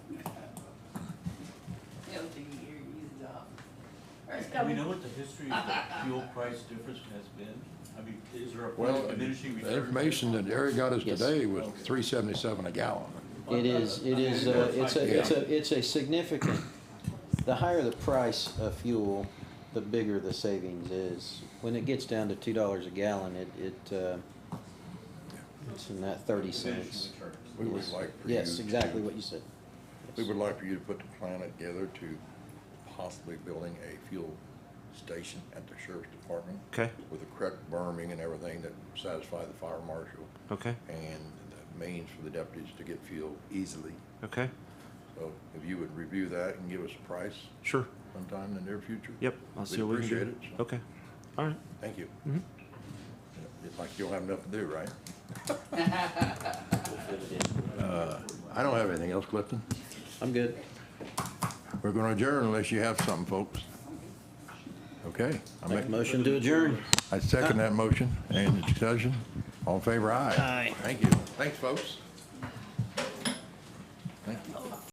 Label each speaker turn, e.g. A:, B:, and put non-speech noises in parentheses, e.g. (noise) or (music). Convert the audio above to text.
A: Do we
B: coming.
A: know what the history of the fuel price difference has been? I mean, is there a point
C: Well,
A: of diminishing
C: the
A: returns?
C: information that Eric got us
D: Yes.
C: today was
A: Okay.
C: three seventy-seven a gallon.
D: It is, it is,
A: I mean,
D: uh,
A: that's
D: it's
A: fine.
D: a, it's a, it's a significant, the higher the price of fuel, the bigger the savings is. When it gets down to two dollars a gallon, it, it, uh, it's in that thirty
A: Diminishing
D: cents.
A: returns.
C: We would
D: Yes.
C: like for you
D: Yes, exactly
C: to-
D: what you said.
C: We would like for you to put the plan together to possibly building a fuel station at the sheriff's department.
E: Okay.
C: With the correct berming and everything that satisfy the fire marshal
E: Okay,
C: and the means for the deputies to get fuel easily.
E: okay,
C: So if you would review that and give us a price
E: sure.
C: sometime in the near future.
E: Yep, I'll see what we can do.
C: We'd appreciate it. so
E: Okay, all right.
C: Thank you.
E: Mhm.
C: It's like you'll have enough to do,
D: (laughs)
C: right?
D: We'll fit it in.
C: Uh, I don't have anything else, Clifton.
D: I'm good.
C: We're gonna adjourn unless you have something, folks. Okay. I
D: Make
C: make-
D: a motion to adjourn.
C: I second that motion. Any discussion? All in favor, aye.
D: Aye.
C: Thank you. Thanks, folks. Thank you.